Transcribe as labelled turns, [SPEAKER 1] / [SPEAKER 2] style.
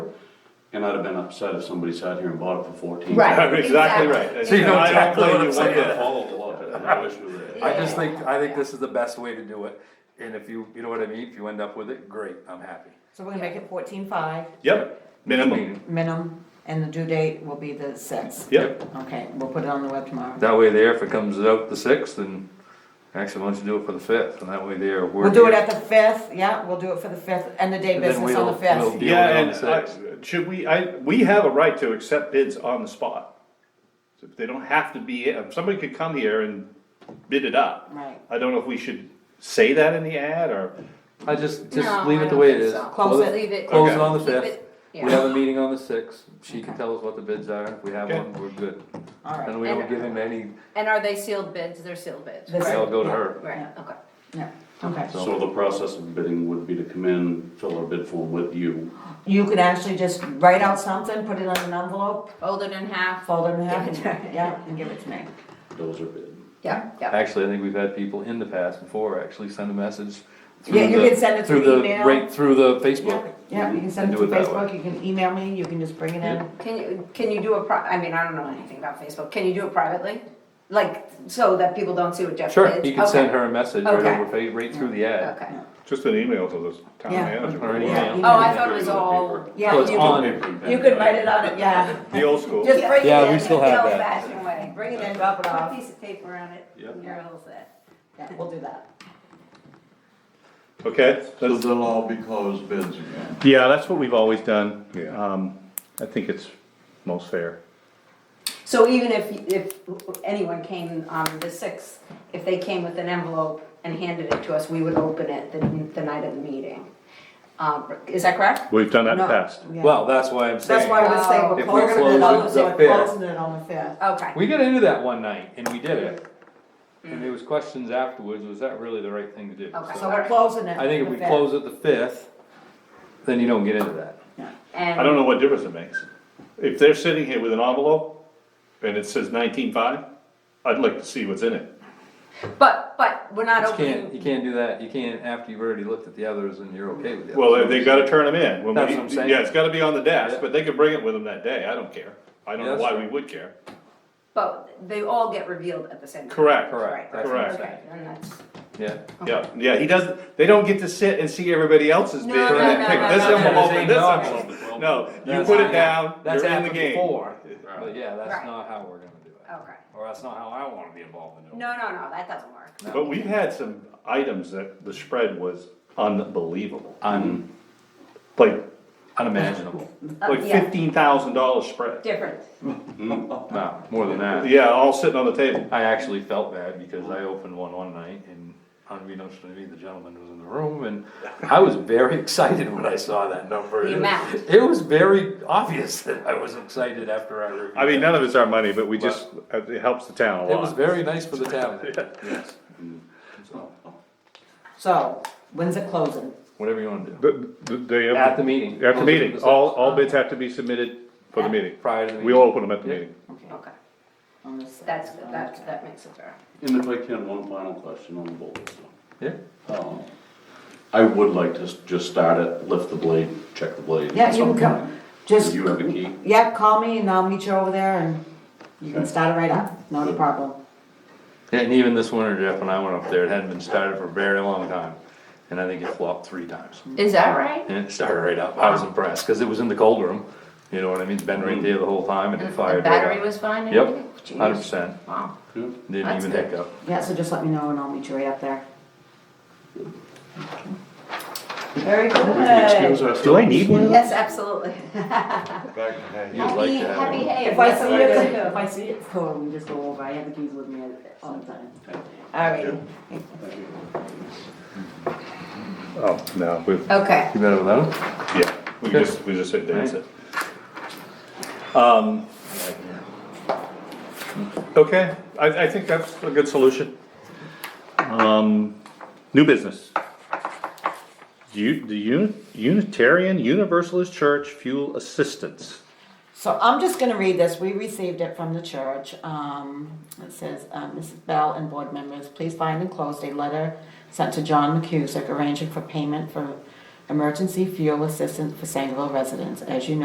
[SPEAKER 1] And I'd have been upset if somebody sat here and bought it for fourteen.
[SPEAKER 2] Right.
[SPEAKER 3] Exactly
[SPEAKER 2] Exactly.
[SPEAKER 3] right.
[SPEAKER 4] So you know
[SPEAKER 3] I don't
[SPEAKER 4] exactly
[SPEAKER 3] blame
[SPEAKER 4] what
[SPEAKER 3] you
[SPEAKER 4] I'm
[SPEAKER 3] one
[SPEAKER 4] saying.
[SPEAKER 3] bit.
[SPEAKER 1] Follow up, and I wish we were there.
[SPEAKER 4] I just think, I think this is the best way to do it, and if you, you know what I mean, if you end up with it, great, I'm happy.
[SPEAKER 2] So we're gonna make it fourteen five,
[SPEAKER 3] Yep, minimum,
[SPEAKER 2] minimum, and the due date will be the sixth.
[SPEAKER 3] yep,
[SPEAKER 2] Okay, we'll put it on the web tomorrow.
[SPEAKER 4] That way there, if it comes out the sixth, then actually, why don't you do it for the fifth, and that way there, we're.
[SPEAKER 2] We'll do it at the fifth, yeah, we'll do it for the fifth, end of day
[SPEAKER 4] And then
[SPEAKER 2] business on the
[SPEAKER 4] we'll- we'll
[SPEAKER 2] fifth.
[SPEAKER 4] deal
[SPEAKER 3] yeah,
[SPEAKER 4] with it on
[SPEAKER 3] and
[SPEAKER 4] the
[SPEAKER 3] I,
[SPEAKER 4] sixth.
[SPEAKER 3] should we, I, we have a right to accept bids on the spot. So They don't have to be, if somebody could come here and bid it up.
[SPEAKER 2] Right.
[SPEAKER 3] I don't know if we should say that in the ad, or,
[SPEAKER 4] I just, just
[SPEAKER 5] No,
[SPEAKER 4] leave
[SPEAKER 5] I
[SPEAKER 4] it the
[SPEAKER 5] don't
[SPEAKER 4] way it
[SPEAKER 5] think
[SPEAKER 4] is.
[SPEAKER 5] so.
[SPEAKER 2] Close it.
[SPEAKER 5] Leave it.
[SPEAKER 4] Close it
[SPEAKER 3] Okay.
[SPEAKER 4] on the
[SPEAKER 5] Keep it-
[SPEAKER 4] fifth, we
[SPEAKER 5] yeah.
[SPEAKER 4] have a meeting on the sixth, she can
[SPEAKER 2] Okay.
[SPEAKER 4] tell us what the bids are, if we have
[SPEAKER 3] Okay.
[SPEAKER 4] one, we're good.
[SPEAKER 2] All
[SPEAKER 4] And
[SPEAKER 2] right,
[SPEAKER 4] we
[SPEAKER 5] And-
[SPEAKER 4] don't give him any,
[SPEAKER 5] And are they sealed bids? They're sealed bids,
[SPEAKER 2] They're
[SPEAKER 5] right?
[SPEAKER 4] they all go to
[SPEAKER 2] Yeah.
[SPEAKER 4] her.
[SPEAKER 5] Right, okay.
[SPEAKER 2] yeah, okay.
[SPEAKER 1] So the process of bidding would be to come in, fill our bid form with you.
[SPEAKER 2] You could actually just write out something, put it on an envelope,
[SPEAKER 5] Fold it in half.
[SPEAKER 2] fold it in half,
[SPEAKER 5] Give it to me.
[SPEAKER 2] yeah, and give it to me.
[SPEAKER 1] Those are bid.
[SPEAKER 5] Yeah, yeah.
[SPEAKER 4] Actually, I think we've had people in the past before actually send a message. through
[SPEAKER 2] Yeah, you
[SPEAKER 4] the-
[SPEAKER 2] can send it through
[SPEAKER 4] the
[SPEAKER 2] email.
[SPEAKER 4] Right, through the
[SPEAKER 2] Yeah,
[SPEAKER 4] Facebook.
[SPEAKER 2] yeah, you can send
[SPEAKER 4] And
[SPEAKER 2] it to
[SPEAKER 4] do that way.
[SPEAKER 2] Facebook, you can email me, you can just bring it in.
[SPEAKER 5] Can you, can you do a pri, I mean, I don't know anything about Facebook. Can you do it privately? Like, so that people don't see what Jeff did?
[SPEAKER 4] Sure, you can
[SPEAKER 5] Okay.
[SPEAKER 4] send her a message right
[SPEAKER 5] Okay.
[SPEAKER 4] over, fa- right through the ad.
[SPEAKER 5] Okay.
[SPEAKER 3] just an email to the town
[SPEAKER 2] Yeah.
[SPEAKER 3] manager.
[SPEAKER 4] Or
[SPEAKER 2] Yeah.
[SPEAKER 4] email.
[SPEAKER 5] Oh, I thought it was all.
[SPEAKER 2] Yeah,
[SPEAKER 4] Well, it's
[SPEAKER 2] you
[SPEAKER 4] on.
[SPEAKER 2] could- you could write it on it, yeah,
[SPEAKER 3] The old school.
[SPEAKER 2] just bring it in.
[SPEAKER 4] Yeah, we still have that.
[SPEAKER 5] Old-fashioned way.
[SPEAKER 2] Bring it in, drop it
[SPEAKER 5] Put a
[SPEAKER 2] off,
[SPEAKER 5] piece of paper on it.
[SPEAKER 1] Yeah.
[SPEAKER 5] Your little set.
[SPEAKER 2] yeah, we'll do that.
[SPEAKER 3] Okay,
[SPEAKER 6] So
[SPEAKER 3] that's-
[SPEAKER 6] they'll all be closed bids again.
[SPEAKER 3] yeah, that's what we've always done.
[SPEAKER 6] Yeah.
[SPEAKER 3] Um, I think it's most fair.
[SPEAKER 5] So even if, if anyone came on the sixth, if they came with an envelope and handed it to us, we would open it the, the night of the meeting. Um, is that correct?
[SPEAKER 3] We've done that in the
[SPEAKER 2] No,
[SPEAKER 3] past.
[SPEAKER 2] yeah.
[SPEAKER 4] Well, that's why I'm
[SPEAKER 2] That's
[SPEAKER 4] saying.
[SPEAKER 2] why I was saying, we're
[SPEAKER 4] If we
[SPEAKER 2] closing it on,
[SPEAKER 4] close it
[SPEAKER 2] we're
[SPEAKER 4] the fifth.
[SPEAKER 2] closing it on the fifth.
[SPEAKER 5] Okay.
[SPEAKER 4] We got into that one night and we did it. And there was questions afterwards, was that really the right thing to do?
[SPEAKER 5] Mm-hmm. Okay.
[SPEAKER 2] So
[SPEAKER 4] So
[SPEAKER 2] we're closing it.
[SPEAKER 4] I think if
[SPEAKER 2] on
[SPEAKER 4] we
[SPEAKER 2] the
[SPEAKER 4] close it the fifth, then you don't get into that.
[SPEAKER 5] And
[SPEAKER 3] I don't know what difference it makes. If they're sitting here with an envelope and it says nineteen five, I'd like to see what's in it.
[SPEAKER 5] But, but we're not
[SPEAKER 4] You can't, you
[SPEAKER 5] opening,
[SPEAKER 4] can't do that, you can't after you've already looked at the others and you're okay with the others.
[SPEAKER 3] Well, they- they gotta turn them in. when we-
[SPEAKER 4] That's what I'm saying.
[SPEAKER 3] Yeah, it's gotta be on the desk,
[SPEAKER 4] Yeah.
[SPEAKER 3] but they could bring it with them that day, I don't care. I don't
[SPEAKER 4] Yeah,
[SPEAKER 3] know
[SPEAKER 4] that's
[SPEAKER 3] why
[SPEAKER 4] true.
[SPEAKER 3] we would care.
[SPEAKER 5] but they all get revealed at the same time.
[SPEAKER 3] Correct,
[SPEAKER 4] Correct, that's what I'm
[SPEAKER 3] Correct.
[SPEAKER 5] Okay, then that's,
[SPEAKER 4] Yeah.
[SPEAKER 3] yeah, yeah, he doesn't, they don't get to sit and see everybody else's
[SPEAKER 5] No,
[SPEAKER 3] bid and
[SPEAKER 5] no,
[SPEAKER 3] then
[SPEAKER 5] no,
[SPEAKER 3] pick
[SPEAKER 5] no,
[SPEAKER 3] this
[SPEAKER 5] no, no.
[SPEAKER 3] envelope and this
[SPEAKER 4] No.
[SPEAKER 3] envelope. No, you
[SPEAKER 4] That's-
[SPEAKER 3] put it down,
[SPEAKER 4] That's
[SPEAKER 3] you're in the
[SPEAKER 4] happened
[SPEAKER 3] game.
[SPEAKER 4] before, but yeah, that's
[SPEAKER 5] Right.
[SPEAKER 4] not how we're gonna do it.
[SPEAKER 5] okay.
[SPEAKER 4] Or that's not how I wanna be involved in it.
[SPEAKER 5] No, no, no, that doesn't work.
[SPEAKER 3] But we've had some items that the spread was unbelievable,
[SPEAKER 4] Un,
[SPEAKER 3] like,
[SPEAKER 4] unimaginable,
[SPEAKER 5] Uh,
[SPEAKER 3] like
[SPEAKER 5] yeah,
[SPEAKER 3] fifteen thousand dollar spread.
[SPEAKER 5] Different.
[SPEAKER 4] no, more than that.
[SPEAKER 3] Yeah, all sitting on the table.
[SPEAKER 4] I actually felt bad because I opened one one night and unbeknownst to me, the gentleman was in the room and I was very excited when I saw that number.
[SPEAKER 5] The amount.
[SPEAKER 4] It was very obvious that I was excited after I reviewed.
[SPEAKER 3] I mean,
[SPEAKER 4] it.
[SPEAKER 3] none of it's our money, but we just, it helps the town a
[SPEAKER 4] It was
[SPEAKER 3] lot.
[SPEAKER 4] very nice for the town, yes. So,
[SPEAKER 2] So, when's it closing?
[SPEAKER 4] Whatever you wanna do.
[SPEAKER 3] But th- they,
[SPEAKER 4] At
[SPEAKER 3] have-
[SPEAKER 4] the meeting.
[SPEAKER 3] at the meeting, all, all
[SPEAKER 2] sixth.
[SPEAKER 3] bids have to be submitted for the meeting.
[SPEAKER 4] Prior to the
[SPEAKER 3] We'll
[SPEAKER 4] meeting.
[SPEAKER 3] open them at the
[SPEAKER 4] Yeah.
[SPEAKER 3] meeting.
[SPEAKER 5] Okay,
[SPEAKER 2] On the sixth.
[SPEAKER 5] that's, that, that makes it fair.
[SPEAKER 1] And if I can, one final question on the bullet.
[SPEAKER 4] Yeah,
[SPEAKER 1] Um, I would like to s- just start it, lift the blade, check the blade.
[SPEAKER 2] Yeah, you can come, just,
[SPEAKER 1] You have the key?
[SPEAKER 2] yeah, call me and I'll meet you over there and you can start it right up, not a problem.
[SPEAKER 4] Yeah, and even this winter, Jeff, when I went up there, it hadn't been started for a very long time, and I think it flopped three times.
[SPEAKER 5] Is that right?
[SPEAKER 4] And it started right up. I was impressed, cause it was in the cold room, you know what I mean? It's been right there the whole time and it
[SPEAKER 5] The
[SPEAKER 4] fired
[SPEAKER 5] Mm-hmm. battery
[SPEAKER 4] right up.
[SPEAKER 5] was fine and
[SPEAKER 4] Yep,
[SPEAKER 5] everything? Jeez.
[SPEAKER 4] hundred percent.
[SPEAKER 5] Wow.
[SPEAKER 4] Didn't
[SPEAKER 5] That's
[SPEAKER 4] even
[SPEAKER 5] good.
[SPEAKER 4] hiccup.
[SPEAKER 2] Yeah, so just let me know and I'll meet you right up there. Very
[SPEAKER 1] We can excuse
[SPEAKER 2] good.
[SPEAKER 1] ourselves.
[SPEAKER 3] Do I need one?
[SPEAKER 5] Yes, absolutely.
[SPEAKER 6] Back to hay.
[SPEAKER 4] You'd like to have
[SPEAKER 5] Happy, happy
[SPEAKER 4] one.
[SPEAKER 5] hay.
[SPEAKER 2] If I see
[SPEAKER 5] Yes, I
[SPEAKER 2] it,
[SPEAKER 5] do.
[SPEAKER 2] if I see it, cool, we just go over, I have the keys with me all the time. Alright,
[SPEAKER 3] Oh, no, we,
[SPEAKER 5] Okay,
[SPEAKER 4] You better without him?
[SPEAKER 3] yeah, we
[SPEAKER 4] Okay.
[SPEAKER 3] just, we just sit there and
[SPEAKER 4] Right.
[SPEAKER 3] sit. Um, okay, I, I think that's a good solution. Um, new business. You, the Uni- Unitarian Universalist Church Fuel Assistance.
[SPEAKER 2] So I'm just gonna read this, we received it from the church, um, it says, uh, Mrs. Bell and board members, please find enclosed a letter sent to John McCusick arranging for payment for emergency fuel assistance for Sangerville residents. As you know.